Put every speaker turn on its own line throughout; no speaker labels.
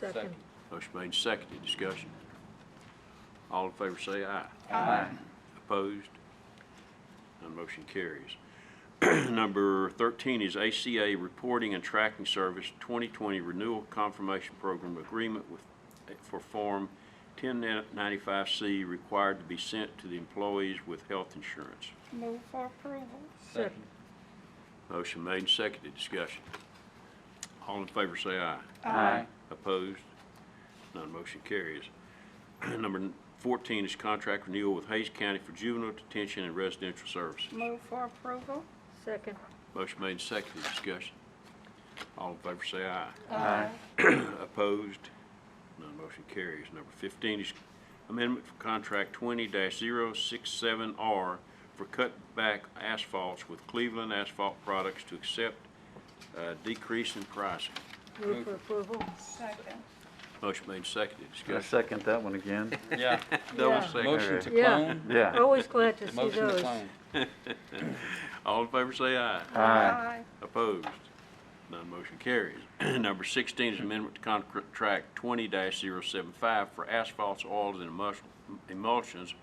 Second.
Motion made, seconded, discussion. All in favor say aye. Opposed? None motion carries. Number 13 is ACA Reporting and Tracking Service 2020 Renewal Confirmation Program Agreement with, for Form 1095C required to be sent to the employees with health insurance.
Move for approval.
Second.
Motion made, seconded, discussion. All in favor say aye.
Aye.
Opposed? None motion carries. Number 14 is contract renewal with Hayes County for juvenile detention and residential services.
Move for approval.
Second.
Motion made, seconded, discussion. All in favor say aye.
Aye.
Opposed? None motion carries. Number 15 is amendment for contract 20-067R for cutback asphalts with Cleveland Asphalt Products to accept uh, decrease in pricing.
Move for approval.
Second.
Motion made, seconded,
I
discussion.
second that one again.
Yeah,
Double
Yeah.
seconded.
motion to
Yeah.
clone,
Yeah.
Always glad to see
motion to
those.
clone.
All in favor say aye.
Aye.
Opposed? None motion carries. Number 16 is amendment to contract 20-075 for asphalts, oils, and emulsion- emulsions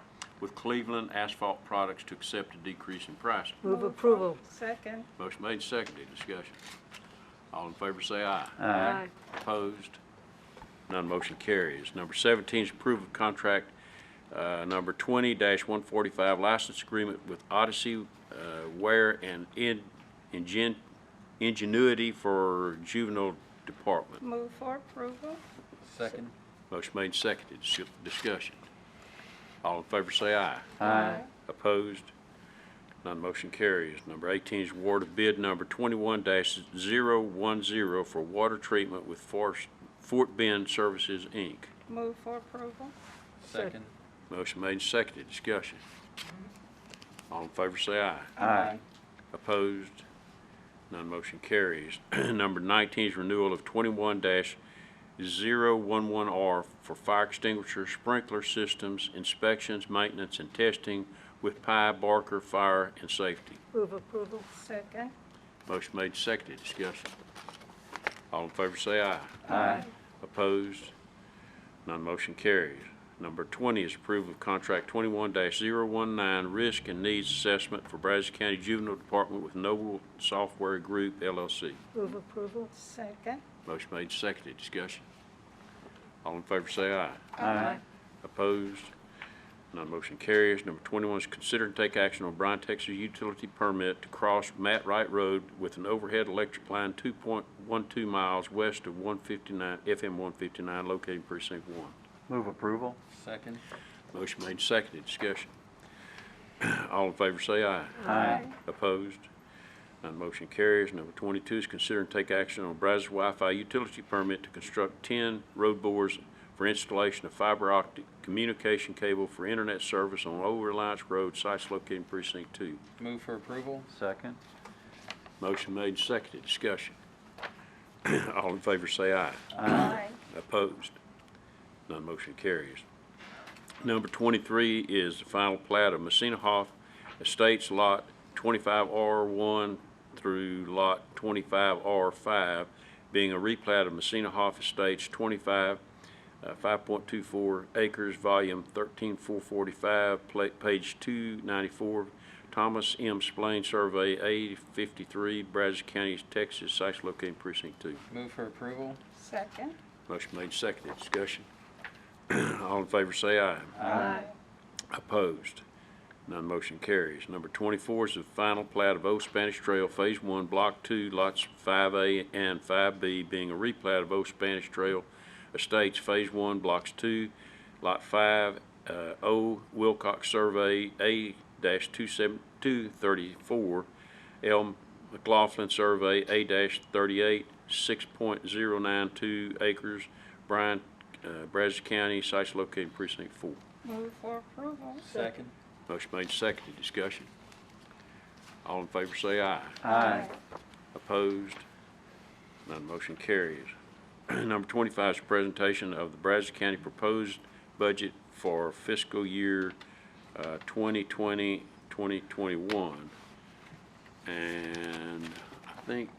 with Cleveland Asphalt Products to accept a decrease in price.
Move approval.
Second.
Motion made, seconded, discussion. All in favor say aye.
Aye.
Opposed? None motion carries. Number 17 is approve of contract uh, number 20-145 license agreement with Odyssey uh, Ware and In- Ingen- Ingenuity for Juvenile Department.
Move for approval.
Second,
Motion made, seconded. Dis- Discussion. All in favor say aye.
Aye.
Opposed? None motion carries. Number 18 is award of bid number 21-010 for water treatment with Forest- Fort Bend Services, Inc.
Move for approval.
second.
Motion made and seconded. Discussion. All in favor say aye.
Aye.
Opposed? None motion carries. Number 19 is renewal of 21-011R for fire extinguisher sprinkler systems inspections, maintenance, and testing with Pi Barker Fire and Safety.
Move approval.
Second.
Motion made, seconded, discussion. All in favor say aye.
Aye.
Opposed? None motion carries. Number 20 is approval of contract 21-019 Risk and Needs Assessment for Brazos County Juvenile Department with Noble Software Group LLC.
Move approval.
Second.
Motion made, seconded, discussion. All in favor say aye.
Aye.
Opposed? None motion carries. Number 21 is consider and take action on Bryan, Texas utility permit to cross Matt Wright Road with an overhead electric line 2.12 miles west of 159, FM 159, located in precinct 1.
Move approval.
Second,
Motion made, seconded, discussion. All in favor say aye.
Aye.
Opposed? None motion carries. Number 22 is consider and take action on Brazos Wi-Fi utility permit to construct 10 road bores for installation of fiber optic communication cable for internet service on Old Reliance Road, sites located in precinct 2.
move for approval.
Second.
Motion made, seconded, discussion. All in favor say aye.
Aye.
Opposed? None motion carries. Number 23 is the final plat of Messina Hoff Estates Lot 25R1 through Lot 25R5, being a replat of Messina Hoff Estates 25, uh, 5.24 acres, volume 13445, pla- page 294, Thomas M. Splain Survey, A53, Brazos County, Texas, sites located in precinct 2.
Move for approval.
Second.
Motion made, seconded, discussion. All in favor say aye.
Aye.
Opposed? None motion carries. Number 24 is the final plat of Old Spanish Trail Phase 1, Block 2, Lots 5A and 5B, being a replat of Old Spanish Trail Estates Phase 1, Blocks 2, Lot 5, uh, O Wilcox Survey A-27234, L McLaughlin Survey A-38, 6.092 acres, Bryan, uh, Brazos County, sites located in precinct 4.
Move for approval.
Second,
Motion made, seconded, discussion. All in favor say aye.
Aye.
Opposed? None motion carries. Number 25 is presentation of the Brazos County proposed budget for fiscal year uh, 2020, 2021. And I think,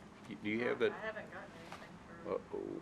do you have that?
I haven't gotten anything for
Uh-oh.